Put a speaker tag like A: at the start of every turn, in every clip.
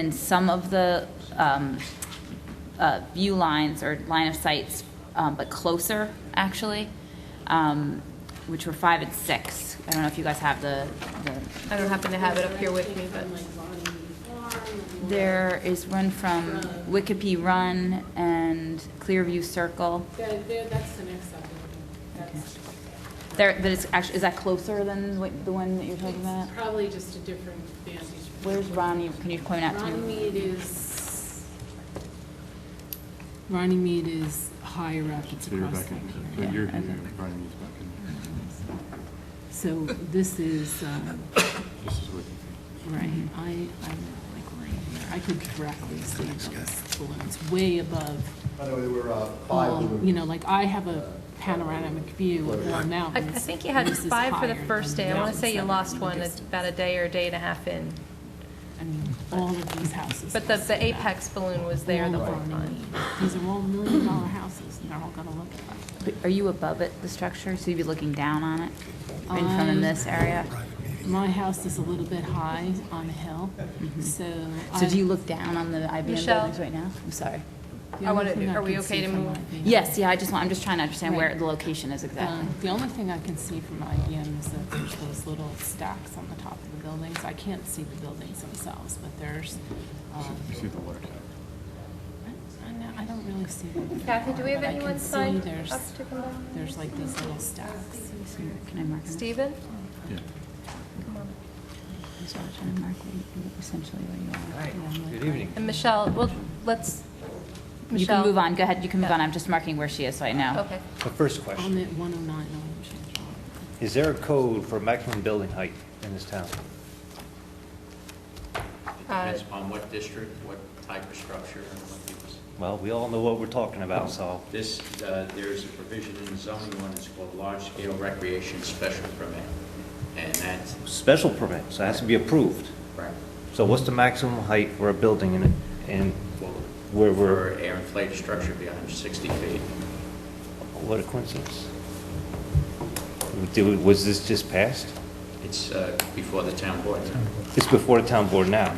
A: And some of the um, uh, view lines or line of sights, um, but closer, actually, um, which were five and six. I don't know if you guys have the, the-
B: I don't happen to have it up here with me, but
A: there is one from Wikipedia Run and Clearview Circle.
C: There, there, that's the next subdivision. That's
A: There, but it's actually, is that closer than what- the one that you're talking about?
C: it's probably just a different vantage. point.
A: Where's Ronnie? Can you point out to me?
C: Ronnie Mead is, Ronnie Mead is higher up, it's
D: So you're
C: across
D: back in,
C: that
D: so
C: area.
D: you're,
A: okay.
D: here, Brian is back in.
C: So this is, um,
D: This is what,
C: right, I, I'm like right here, I could directly see those balloons, way above,
E: By the way, there were uh, five
C: all- Um, you know,
E: balloons.
C: like I have a panoramic view of
B: I,
C: all
B: I
C: mountains.
B: think you had
C: This is
B: five for the
C: higher
B: first day.
C: than
B: I want to
C: mountains
B: say you
C: that are
B: lost
C: in
B: one
C: the
B: at
C: distance.
B: about a day or a day and a half in.
C: I mean, all of these houses.
B: But the,
C: must be
B: the
C: that.
B: apex balloon was there the whole time.
C: These are all million dollar houses, and they're all gonna look like.
A: Are you above it, the structure? So you'd be looking down on it? In front of
C: Um,
A: this area?
C: My house is a little bit high on a hill, so.
A: So do you
C: I-
A: look down on the IBM
B: Michelle?
A: buildings right now? I'm sorry.
B: I
C: the only
B: wanna-
C: thing I
B: are we
C: can
B: okay
C: see
B: to
C: from
B: move?
C: IBM
A: Yes, yeah, I just want, I'm just trying to understand where
C: Right.
A: the location is exactly.
C: Um, The only thing I can see from IBM is that there's those little stacks on the top of the buildings. I can't see the buildings themselves, but there's, um,
D: you see the water tower?
C: I- I know- I don't really see them.
B: Kathy, do we have
C: But I can
B: anyone
C: see
B: signed
C: there's-
B: up to come down?
C: There's like these little stacks.
A: Can I mark it?
B: Stephen?
D: Yeah.
A: I'm sorry, trying to mark where you- essentially where you are.
F: Good evening.
B: And Michelle, well, let's,
A: You can
B: Michelle?
A: move on, go ahead, you can move
B: Yeah.
A: on. I'm just marking where she is so I know.
B: Okay.
F: The first
C: I'm
F: question,
C: at 109 Orange Street.
F: is there a code for maximum building height in this town?
B: Uh,
G: Depends upon what district, what type of structure, and what use.
F: Well, we all know what we're talking about, so
G: This, uh, there's a provision in the zoning ordinance called large-scale recreation special permit, and that's,
F: special permit, so it has to be approved.
G: right,
F: So what's the maximum height for a building in, in, where
G: for
F: we're,
G: air inflated structure be 160 feet.
F: what a coincidence? Did- Was this just passed?
G: It's uh, before the town board now.
F: It's before the town board now.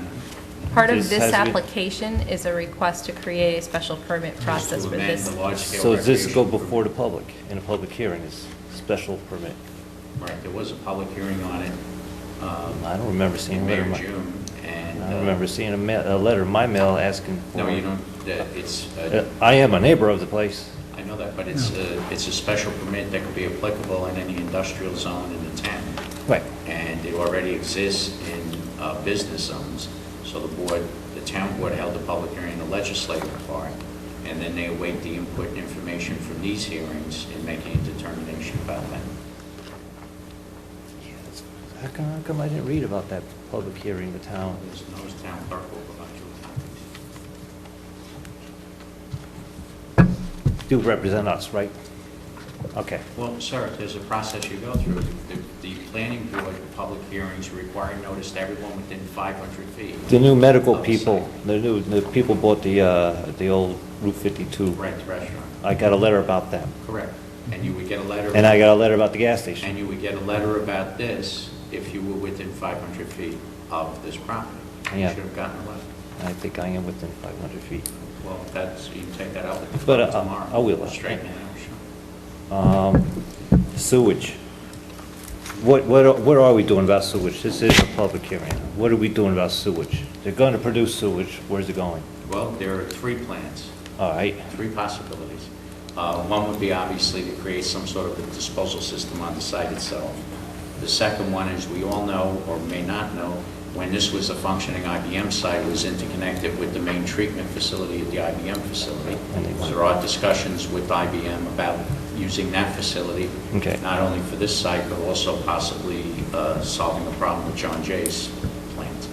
B: Part of
F: This
B: this
F: has to be-
B: application is a request to create a special permit process
G: To
B: for
G: amend
B: this.
G: the large-scale
F: So does this go
G: recreation
F: before the
G: permit.
F: public, in a public hearing, is special permit?
G: Right, there was a public hearing on it um,
F: I don't remember seeing a
G: in May
F: letter. in
G: or
F: my-
G: June, and...
F: I
G: uh,
F: don't remember seeing a ma, a letter in my mail asking for.
G: No, you don't, uh, it's...
F: Uh,
G: uh,
F: I am a neighbor of the place.
G: I know that, but it's a, it's a special permit that could be applicable in any industrial zone in the town.
F: Right.
G: And it already exists in uh, business zones. So the board, the town board held a public hearing in the legislative part, and then they await the input and information from these hearings in making a determination about that.
F: How come, how come I didn't read about that public hearing, the town?
G: There's no town clerk will provide you with copies.
F: Do represent us, right? Okay.
G: Well, sir, there's a process you go through. The, the planning board, public hearings require notice to everyone within 500 feet.
F: The new medical
G: of the
F: people,
G: site.
F: the new, the people bought the, uh, the old Route 52.
G: Correct, restaurant.
F: I got a letter about that.
G: Correct. And you would get a letter.
F: And I got a letter about the gas station.
G: And you would get a letter about this if you were within 500 feet of this property. You
F: Yeah.
G: should have gotten a letter.
F: I think I am within 500 feet.
G: Well, that's, you can take that out with the
F: But, uh,
G: clerk tomorrow.
F: I will.
G: Straighten it out, sure.
F: Um, Sewage. What, what, are- what are we doing about sewage? This is a public hearing. What are we doing about sewage? They're going to produce sewage. Where's it going?
G: Well, there are three plans,
F: All right.
G: three possibilities. Uh, One would be obviously to create some sort of a disposal system on the site itself. The second one is, we all know, or may not know, when this was a functioning IBM site, it was interconnected with the main treatment facility at the IBM facility.
F: And they want-
G: There are discussions with IBM about using that facility.
F: Okay.
G: Not only for this site, but also possibly uh, solving the problem with John Jay's plant.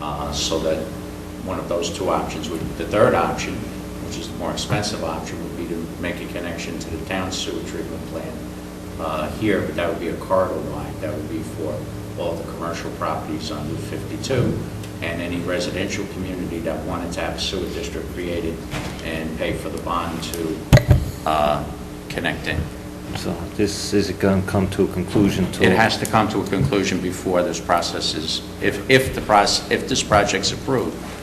G: Uh, So that one of those two options would, the third option, which is the more expensive option, would be to make a connection to the town sewer treatment plant uh, here, but that would be a corridor line. That would be for all the commercial properties on Route 52 and any residential community that wanted to have a sewer district created and pay for the bond to uh, connect in.
F: So this is going to come to a conclusion to...
G: It has to come to a conclusion before this process is, if, if the process, if this project's approved,